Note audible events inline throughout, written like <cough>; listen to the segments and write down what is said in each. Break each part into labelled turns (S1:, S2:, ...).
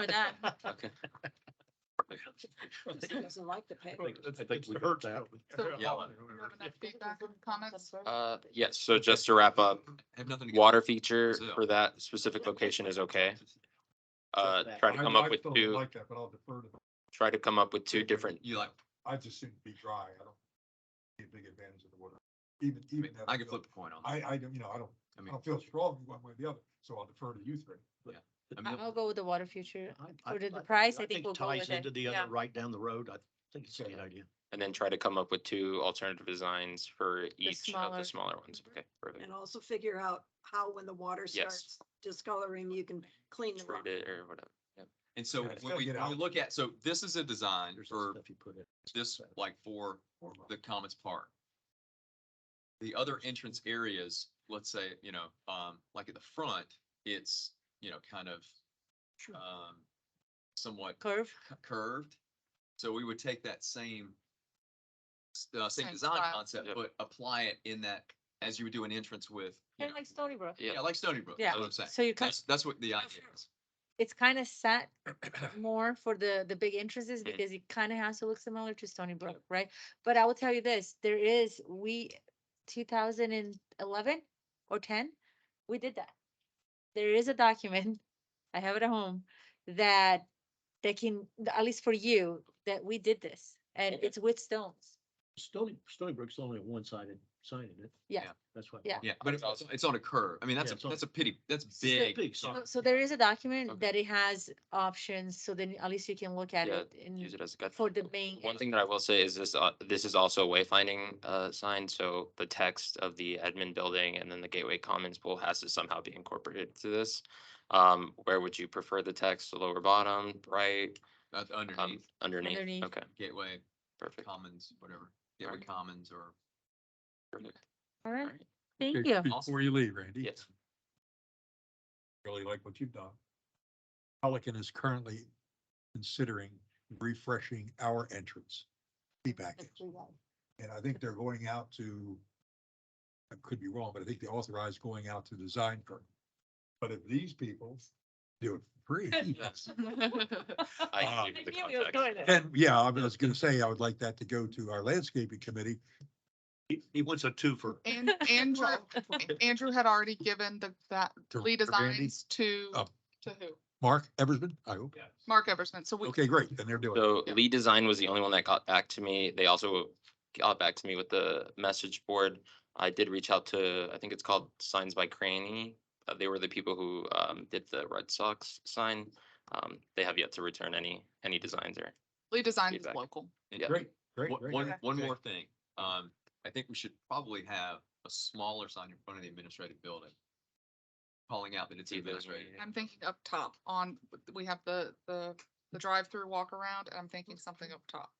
S1: with that.
S2: <laughs>
S3: Okay.
S4: He doesn't like the pay.
S5: I
S6: think we
S5: heard
S6: got
S7: Feedback and comments?
S3: <laughs> Uh, yes, so just to wrap up,
S6: Have nothing. to-
S3: water feature for that specific location is okay. Uh, try to come up with two,
S5: Like that, but I'll defer to,
S3: try to come up with two different,
S6: You like,
S5: I just seem to be dry. I don't see a big advantage of the water. Even,
S6: I
S5: even.
S6: mean, I can flip the coin on
S5: I, oh.
S6: that.
S5: I don't, you know, I don't,
S6: I
S5: I
S6: mean,
S5: don't feel strong one way or the other, so I'll defer to you three.
S6: I mean,
S1: I'll go with the water future.
S2: I-
S1: For the
S2: I-
S1: price, I
S2: I
S1: think
S2: think
S1: we'll
S2: it
S1: go
S2: ties
S1: with
S2: into
S1: it.
S2: the
S1: Yeah.
S2: other right down the roroad. I think it's a great idea.
S3: and then try to come up with two alternative designs for each of
S1: smaller-
S3: the smaller ones. Okay, perfect.
S4: And also figure out how, when the water
S3: Yes.
S4: starts discoloring, you can clean them up.
S3: Treat it or whatever.
S6: and so
S5: Yeah, it's
S6: when
S5: gotta
S6: we,
S5: get
S6: when we
S5: out.
S6: look at, so this is a design
S2: There's some
S6: for
S2: stuff you put in.
S6: this, like for the Commons Park. The other entrance areas, let's say, you know, um, like at the front, it's, you know, kind of, um, somewhat
S1: Curve,
S6: cu- curved. So we would take that same, s- uh, same
S7: Same
S6: design
S7: style.
S6: concept,
S3: Yep.
S6: but apply it in that, as you would do an entrance with, you
S1: kind of
S6: know,
S1: like Stony Brook.
S3: Yeah.
S6: yeah, like Stony Brook,
S1: Yeah.
S6: that's what I'm saying.
S1: So you kind,
S6: That's, that's what the idea is.
S1: it's kind of
S3: <clears throat>
S1: set more for the, the big entrances because it kind of has to look similar to Stony Brook, right? But I will tell you this, there is, we, two thousand and eleven or ten, we did that. There is a document, <laughs> I have it at home, that, that can, at least for you, that we did this. And
S3: Okay.
S1: it's with stones.
S2: Stony, Stony Brook's only one-sided sign in it.
S1: Yeah.
S6: Yeah.
S2: That's why.
S1: Yeah.
S6: Yeah, but it's,
S3: awesome.
S6: it's on a curve. I mean, that's
S2: Yeah,
S6: a,
S2: it's on-
S6: that's a pity, that's
S2: It's still
S6: big.
S2: big,
S1: So-
S2: sorry.
S1: So there is a document
S6: Okay.
S1: that it has options, so then at least you can look at
S3: Yeah,
S1: it
S3: Use
S1: and
S3: it as a guide.
S1: Mm. for the main.
S3: One thing that I will say is this, uh, this is also a wayfinding, uh, sign, so the text of the admin building and then the Gateway Commons pool has to somehow be incorporated to this. Um, where would you prefer the text, the lower bottom, right,
S6: That's
S3: um,
S6: uh, underneath
S3: underneath,
S1: Underneath.
S3: okay,
S6: Gateway
S3: perfect.
S6: Commons, whatever, Gateway
S3: Alright.
S6: Commons or
S3: perfect.
S1: All right,
S3: Alright.
S1: thank you.
S5: Before you leave, Randy.
S3: Yes.
S5: Really like what you've done. Pelican is currently considering refreshing our entrance. Feedback.
S1: That's pretty well.
S5: And I think they're going out to, I could be wrong, but I think they authorized going out to design firm. But if these people do it free,
S3: I
S6: Ah.
S5: Um,
S3: give you the context.
S5: then, yeah, I was gonna say, I would like that to go to our landscaping committee.
S2: He, he wants a twofer. <laughs>
S7: And Andrew, Andrew had already given the, that
S5: To-
S7: Lee
S5: to Randy?
S7: Designs to,
S5: Oh.
S7: to who?
S5: Mark Eversman, I hope.
S7: Mark Eversman. So we,
S5: Okay, great, then they're doing. it.
S3: So
S7: Yeah.
S3: Lee Design was the only one that got back to me. They also got back to me with the message board. I did reach out to, I think it's called Signs by Cranny. Uh, They were the people who um did the Red Sox sign. Um, they have yet to return any, any designs or.
S7: Lee Designs is
S3: Feedback.
S7: local.
S6: and-
S3: Yeah.
S5: Great, great,
S6: One-
S5: great.
S6: One, one
S5: Okay.
S6: more thing. Um, I think we should probably have a smaller sign in front of the administrative building. Calling out that it's
S3: the ability-
S6: administrative.
S7: I'm thinking up top on, we have the, the, the drive-through walk around and I'm thinking something up top.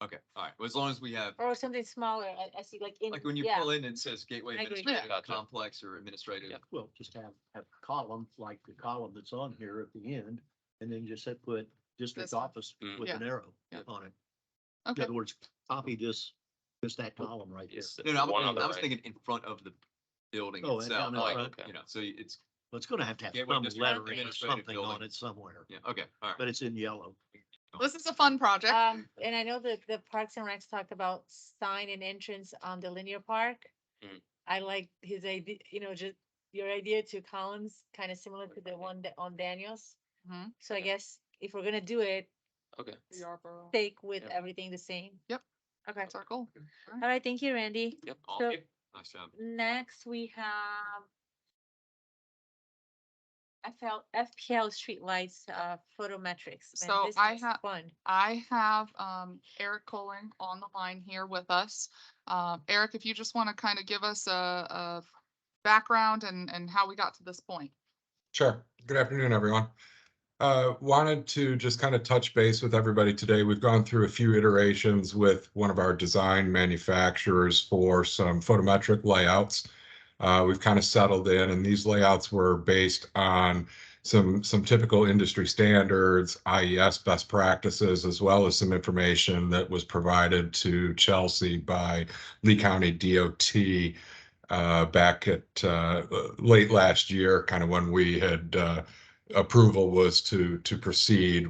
S6: Okay, all right. Well, as long as we have,
S1: Or something smaller, I, I see like in,
S6: like when you
S1: yeah,
S6: pull in and it says Gateway
S1: I agree.
S3: Yeah.
S6: Administrative Complex or Administrative,
S3: Yeah.
S2: Well, just have, have a column, like the column that's on here at the end, and then just say put district
S7: This one.
S2: office
S3: Mm.
S2: with
S7: Yeah.
S2: an arrow
S7: Yeah.
S2: on it. In
S7: Okay.
S2: other words, copy this, just that column right here.
S3: It's
S6: no, no, I
S3: one on
S6: was-
S3: the
S6: I was
S3: right.
S6: thinking in front of the building
S2: Oh, and
S6: itself,
S2: down in
S6: like,
S2: front.
S6: you know, so it's,
S2: But it's gonna have to have
S6: Gateway
S2: some
S6: District
S2: lettering or
S6: Administrative
S2: something on
S6: Building.
S2: it somewhere,
S6: yeah, okay, all right.
S2: but it's in yellow.
S7: This is a fun project.
S1: um, and I know that the Parks and Recs talked about sign and entrance on the linear park.
S6: Mm-hmm.
S3: Mm.
S1: I like his idea, you know, just your idea to Collins, kind of similar to the one that on Daniels.
S7: Mhm.
S1: So I
S3: Yeah.
S1: guess if we're gonna do it,
S3: Okay,
S7: Yarborough.
S1: take with
S3: Yeah.
S1: everything the same.
S7: Yep.
S1: Okay,
S7: That's our goal.
S1: all right, thank you, Randy.
S3: yep.
S6: Aw,
S1: So-
S6: Nice job.
S1: Next, we have FL, FPL streetlights, uh, photometrics. Man,
S7: So
S1: this
S7: I
S1: was
S7: ha-
S1: Fun.
S7: I have um, Eric Colling on the line here with us. Um, Eric, if you just want to kind of give us a, a background and, and how we got to this point.
S8: Sure. Good afternoon, everyone. Uh, Wanted to just kind of touch base with everybody today. We've gone through a few iterations with one of our design manufacturers for some photometric layouts. Uh, We've kind of settled in, and these layouts were based on some, some typical industry standards, IES best practices, as well as some information that was provided to Chelsea by Lee County DOT uh, back at uh, late last year, kind of when we had uh, approval was to, to proceed